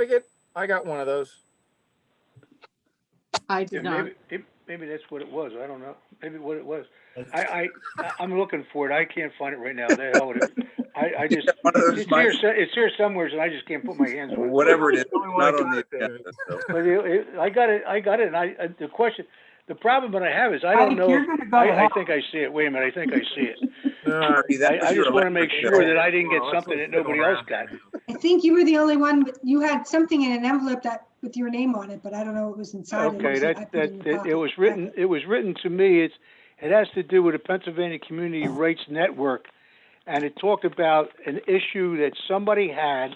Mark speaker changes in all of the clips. Speaker 1: certificate? I got one of those.
Speaker 2: I
Speaker 3: Yeah,
Speaker 2: did not.
Speaker 3: maybe, it- maybe that's what it was, I don't know, maybe what it was. I, I, I- I'm looking for it, I can't find it right now, the hell with it. I, I just,
Speaker 4: One of those
Speaker 3: it's here,
Speaker 4: mics,
Speaker 3: so- it's here somewhere, and I just can't put my hands on it.
Speaker 4: Whatever it is,
Speaker 1: The only one I
Speaker 4: not on the
Speaker 1: got there.
Speaker 4: agenda, so.
Speaker 3: But it, it, I got it, I got it, and I, I- the question, the problem that I have is I
Speaker 2: Mike,
Speaker 3: don't know,
Speaker 2: you're
Speaker 3: if-
Speaker 2: gonna go
Speaker 3: I, I
Speaker 2: off.
Speaker 3: think I see it, wait a minute, I think I see it.
Speaker 1: No,
Speaker 4: Marty, that
Speaker 3: I,
Speaker 4: was
Speaker 3: I
Speaker 4: your
Speaker 3: just wanna make
Speaker 4: electric bill.
Speaker 3: sure that I didn't get
Speaker 1: Well, that's
Speaker 3: something that
Speaker 1: what's going
Speaker 3: nobody else
Speaker 1: around.
Speaker 3: got.
Speaker 5: I think you were the only one, with- you had something in an envelope that, with your name on it, but I don't know what was inside. it. It
Speaker 3: Okay,
Speaker 5: was- I
Speaker 3: that,
Speaker 5: put it in
Speaker 3: that,
Speaker 5: the
Speaker 3: it- it
Speaker 5: pocket.
Speaker 3: was written, it was written to me, it's, it has to do with the Pennsylvania Community Rights Network. And it talked about an issue that somebody had,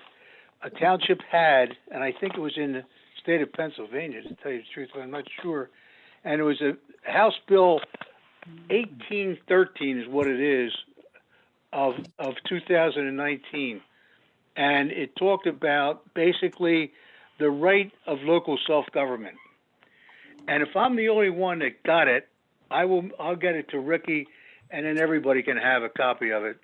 Speaker 3: a township had, and I think it was in the state of Pennsylvania, to tell you the truth, but I'm not sure. And it was a House Bill eighteen thirteen is what it is, of, of two thousand and nineteen. And it talked about basically the right of local self-government. And if I'm the only one that got it, I will, I'll get it to Ricky and then everybody can have a copy of it.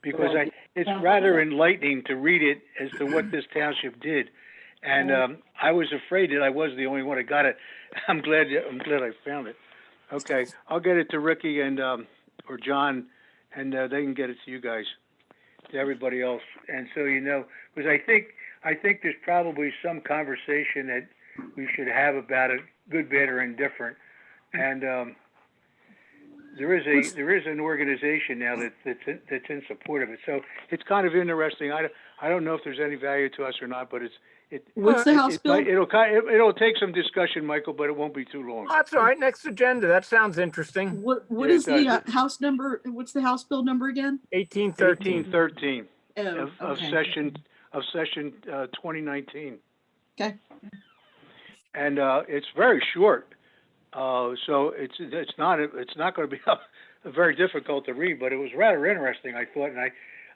Speaker 3: Because I, it's rather enlightening to read it as to what this township did. And, um, I was afraid that I was the only one that got it. I'm glad, I'm glad I found it. Okay, I'll get it to Ricky and, um, or John and, uh, they can get it to you guys, to everybody else. And so you know, because I think, I think there's probably some conversation that we should have about it, good, bad, or indifferent. And um, there is a there is an organization now that that's in, that's in support of it. So it's kind of interesting. I don't, I don't know if there's any value to us or not, but it's it.
Speaker 2: What's the
Speaker 3: it-
Speaker 2: House
Speaker 3: it
Speaker 2: bill?
Speaker 3: might- It'll ki- it- it'll take some discussion, Michael, but it won't be too long.
Speaker 1: Oh, That's all right. Next agenda. That sounds interesting.
Speaker 2: What, what
Speaker 3: Yeah,
Speaker 2: is the
Speaker 3: exactly.
Speaker 2: uh, house number, what's the house bill number again?
Speaker 1: Eighteen
Speaker 3: Thirteen
Speaker 1: thirteen.
Speaker 3: thirteen
Speaker 2: Oh,
Speaker 3: of, of
Speaker 2: okay.
Speaker 3: session of session uh, twenty nineteen.
Speaker 2: Okay.
Speaker 3: And uh, it's very short, uh, so it's it's not it's not going to be very difficult to read, but it was rather interesting. I thought, and I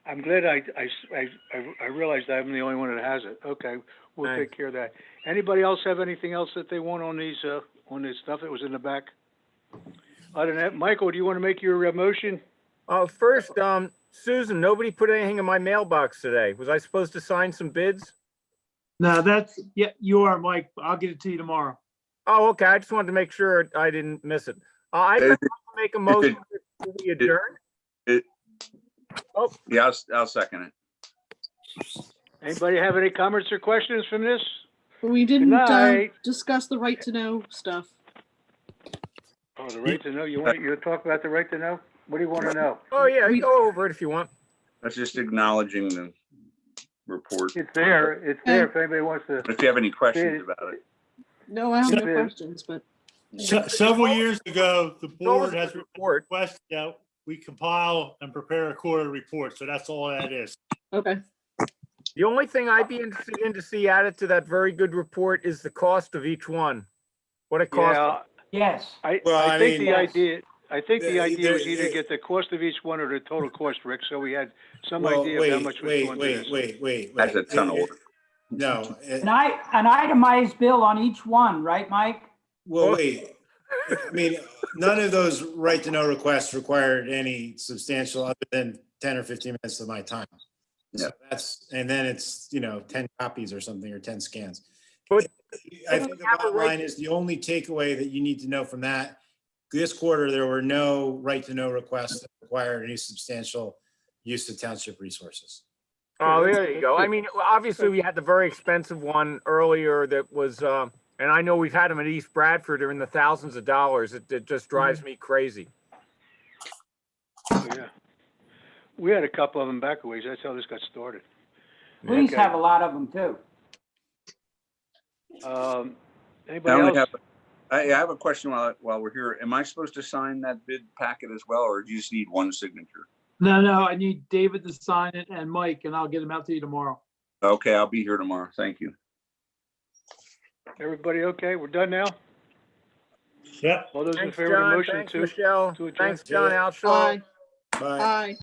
Speaker 3: I'm glad I I I, I realized I'm the only one that has it. Okay, we'll
Speaker 1: Nice.
Speaker 3: take care of that. Anybody else have anything else that they want on these uh, on this stuff that was in the back? Other than that, Michael, do you want to make your uh, motion?
Speaker 1: Uh, first, um, Susan, nobody put anything in my mailbox today. Was I supposed to sign some bids?
Speaker 6: No, that's, yeah, you are, Mike. I'll get it to you tomorrow.
Speaker 1: Oh, okay. I just wanted to make sure I didn't miss it. Uh, I
Speaker 4: Is
Speaker 1: I'd
Speaker 4: it-
Speaker 1: make a motion to we adjourn.
Speaker 4: Yeah, I'll, s- I'll second it.
Speaker 3: Anybody have any comments or questions from this?
Speaker 2: We didn't uh,
Speaker 3: night.
Speaker 2: discuss the right to know stuff.
Speaker 3: Oh, the right to know, you want, you talk about the right to know? What do you want to know?
Speaker 1: Oh, yeah,
Speaker 2: We-
Speaker 1: go over it if you want.
Speaker 4: That's just acknowledging the report.
Speaker 3: It's there, it's there if anybody wants to.
Speaker 4: If you have any questions about it.
Speaker 2: No, I don't have
Speaker 3: Yeah.
Speaker 2: questions, but
Speaker 7: Se- Several years ago, the
Speaker 1: Go over
Speaker 7: board
Speaker 1: the
Speaker 7: has
Speaker 1: report.
Speaker 7: requested that we compile and prepare a quarterly report, so that's all that is.
Speaker 2: okay.
Speaker 1: The only thing I'd be interested in to see added to that very good report is the cost of each one. What it costs.
Speaker 3: Yeah,
Speaker 6: Yes.
Speaker 3: I,
Speaker 7: Well,
Speaker 3: I
Speaker 7: I
Speaker 3: think
Speaker 7: mean-
Speaker 3: the idea, I think the
Speaker 7: Yeah,
Speaker 3: idea was
Speaker 7: either-
Speaker 3: either get the cost of each one or the total cost, Rick, so we had some
Speaker 7: Well,
Speaker 3: idea of how
Speaker 7: wait,
Speaker 3: much was
Speaker 7: wait,
Speaker 3: going to
Speaker 7: wait,
Speaker 3: this.
Speaker 7: wait, wait.
Speaker 4: That's a
Speaker 7: wait.
Speaker 4: ton of
Speaker 7: It- it-
Speaker 4: work.
Speaker 7: No, it-
Speaker 8: An i, an itemized bill on each one, right, Mike?
Speaker 7: well, wait. I mean, none of those right to know requests required any substantial other than 10 or 15 minutes of my time. So
Speaker 4: Yeah.
Speaker 7: that's, and then it's, you know, 10 copies or something or 10 scans.
Speaker 1: But-
Speaker 7: I think the bottom line is the only takeaway that you need to know from that, this quarter, there were no right to know requests that required any substantial use of township resources.
Speaker 1: Oh, there you go. I mean, obviously, we had the very expensive one earlier that was, uh, and I know we've had them at East Bradford, they're in the thousands of dollars. It, it just
Speaker 3: Mm-hmm.
Speaker 1: drives me crazy.
Speaker 3: Yeah. We had a couple of them back a ways, that's how this got started.
Speaker 8: Please
Speaker 3: Okay.
Speaker 8: have a lot of them too.
Speaker 3: Um,
Speaker 4: I
Speaker 3: anybody
Speaker 4: only
Speaker 3: else?
Speaker 4: have, I I have a question while, while we're here. Am I supposed to sign that bid packet as well, or do you just need one signature?
Speaker 6: No, no, I need David to sign it and Mike, and I'll get them out to you tomorrow.
Speaker 4: Okay, I'll be here tomorrow. Thank you.
Speaker 3: Everybody okay? We're done now?
Speaker 7: Yep.
Speaker 3: All those in
Speaker 1: Thanks,
Speaker 3: favor of the
Speaker 1: John.
Speaker 3: motion
Speaker 1: Thanks,
Speaker 3: to?
Speaker 1: Michelle.
Speaker 3: to adjourn?
Speaker 2: Oh,
Speaker 1: Thanks, John Alshaw.
Speaker 2: Bye,
Speaker 7: Bye.
Speaker 2: bye.